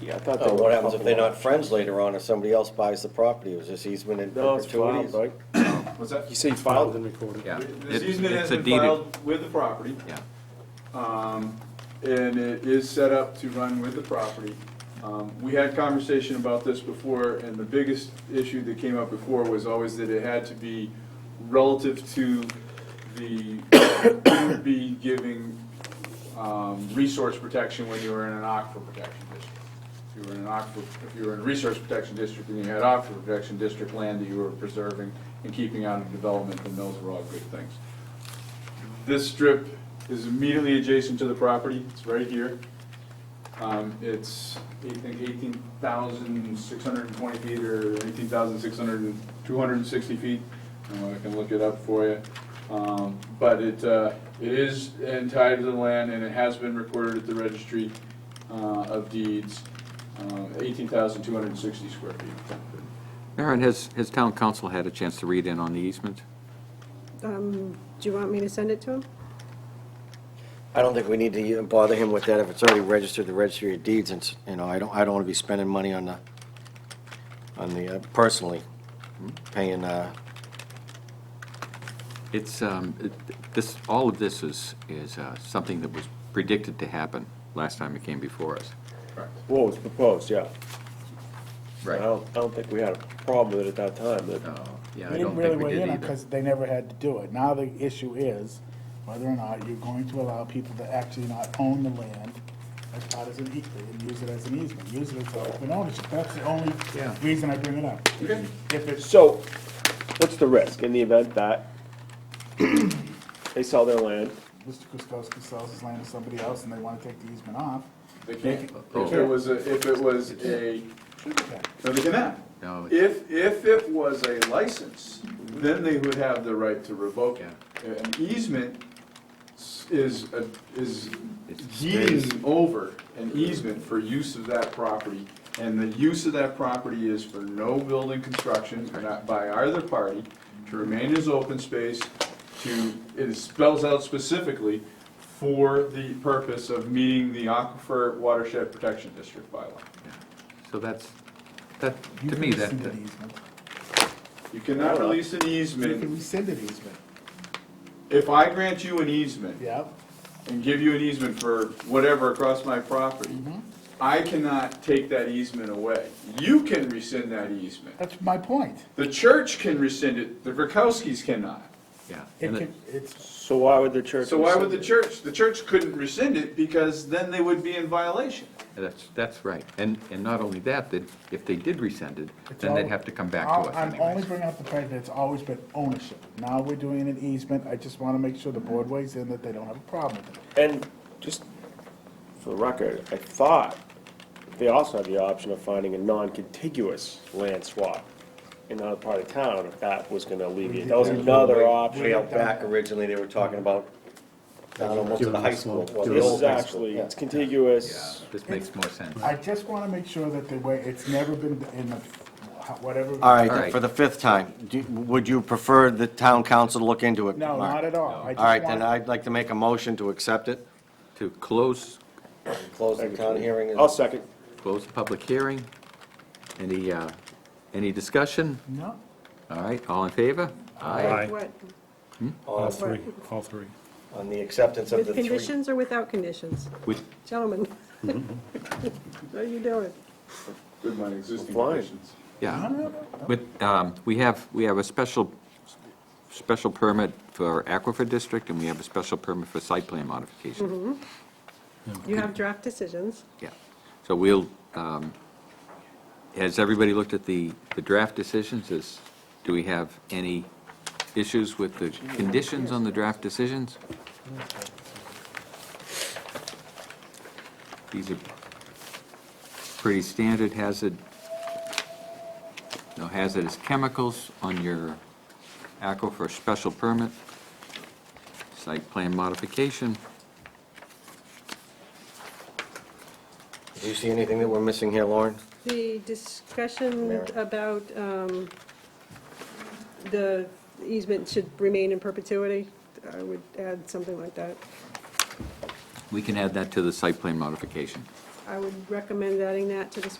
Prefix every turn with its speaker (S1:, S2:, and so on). S1: Yeah, I thought they
S2: Oh,
S1: were.
S2: what happens if they're
S1: couple
S2: not friends later on, if somebody else buys the property, is this easement in
S1: of- No, it's filed,
S2: perpetuities?
S1: right?
S3: What's that?
S1: You say filed and recorded.
S4: Yeah.
S3: This
S4: It's-
S3: easement has
S4: it's a
S3: been
S4: deed-
S3: filed with the property,
S4: Yeah,
S3: um, and it is set up to run with the property. Um, We had conversation about this before, and the biggest issue that came up before was always that it had to be relative to the, who would be giving um, resource protection when you were in an aquifer protection district. If you were in an aquifer, if you were in a resource protection district and you had aquifer protection district land that you were preserving and keeping out of development, then those were all good things. This strip is immediately adjacent to the property, it's right here. Um, It's, I think, 18,620 feet or 18,600, 260 feet. Um, I can look it up for you. Um, But it, uh, it is entitled to the land and it has been recorded at the registry uh, of deeds, um, 18,260 square feet.
S4: Aaron, has, has town council had a chance to read in on the easement?
S5: Um, Do you want me to send it to him?
S2: I don't think we need to even bother him with that if it's already registered, the registry of deeds, and, s- you know, I don't, I don't wanna be spending money on the, on the, uh, personally, paying, uh,
S4: It's, um, it- this, all of this is, is uh, something that was predicted to happen last time it came before us.
S1: Well, it was proposed, yeah. I don't, I don't think we had a problem with it at that time, but.
S4: Uh, Yeah,
S6: We
S4: I
S6: didn't
S4: don't
S6: really
S4: think we
S6: weigh
S4: did
S6: in on,
S4: either.
S6: because they never had to do it. Now the issue is whether or not you're going to allow people to actually not own the land as part of an easement, and use it as an easement, use it as open ownership. That's the only
S4: Yeah.
S6: reason I bring it up.
S3: Okay.
S6: If it's,
S1: So, what's the risk in the event that they sell their land?
S6: Mr. Kuskowski sells his land to somebody else and they want to take the easement off,
S3: They can't,
S4: Oh.
S3: if it was, a- if it was a, no, they cannot.
S4: No, it's-
S3: If, if it was a license, then they would have the right to revoke it. An easement s- is, a- is
S4: It's
S3: deeding over an easement for use of that property. And the use of that property is for no building construction, not by either party, to remain as open space, to, it spells out specifically for the purpose of meeting the Aquifer Watershed Protection District bylaw.
S4: So that's, that,
S6: you
S4: to
S6: can
S4: me, that,
S6: rescind an easement.
S3: You cannot release an
S6: You can
S3: easement.
S6: rescind an easement,
S3: If I grant you an easement
S6: yeah.
S3: and give you an easement for whatever across my property, I cannot take that easement away. You can rescind that easement.
S6: That's my point.
S3: The church can rescind it, the Verkowskis cannot.
S4: yeah.
S6: It
S4: And
S6: can,
S4: it-
S6: it's,
S1: So why would the church?
S3: So why would the
S1: rescind it?
S3: church, the church couldn't rescind it because then they would be in violation.
S4: That's, that's right. And, and not only that, that if they did rescind it,
S6: It's
S4: then they'd
S6: all-
S4: have to come back
S6: I'll-
S4: to us
S6: I'm only
S4: anyways.
S6: bringing up the fact that it's always been ownership. Now we're doing an easement, I just wanna make sure the board weighs in that they don't have a problem with it.
S1: And just for the record, I thought they also had the option of finding a non-contiguous land swap in another part of town if that was gonna alleviate. That was another
S2: way
S1: option.
S2: out back originally, they were talking about, down almost to the high school, well, the
S1: This
S2: old
S1: is
S2: high school.
S1: actually,
S2: yeah.
S1: it's contiguous.
S4: Yeah, This makes more sense.
S6: I just wanna make sure that the way, it's never been in the, whatever.
S2: All
S4: All
S2: right,
S4: right.
S2: for the fifth time, do- would you prefer the town council to look into it?
S6: No,
S2: Mark?
S6: not at all. I
S2: All right,
S6: just
S2: then
S6: want,
S2: I'd like to make a motion to accept it.
S4: To close,
S2: Close the town hearing. and-
S1: I'll second.
S4: close the public hearing. Any, uh, any discussion?
S6: no,
S4: All right, all in favor? Aye.
S5: What,
S2: All
S5: what,
S7: All three.
S2: On the acceptance of the
S5: with
S2: three.
S5: conditions or without conditions?
S4: With,
S5: Gentlemen, what are you doing?
S3: With my existing
S1: Fine.
S3: conditions.
S4: yeah.
S6: no,
S4: But um, we have, we have a special, special permit for Aquifer District, and we have a special permit for site plan modification.
S5: You have draft decisions.
S4: Yeah. So we'll, um, has everybody looked at the, the draft decisions? Is, do we have any issues with the conditions on the draft decisions? These are pretty standard hazard, no hazardous chemicals on your aquifer special permit, site plan modification.
S2: Do you see anything that we're missing here, Lauren?
S5: The discussion
S2: Mary.
S5: about um, the easement should remain in perpetuity, I would add something like that.
S4: We can add that to the site plan modification.
S5: I would recommend adding that to the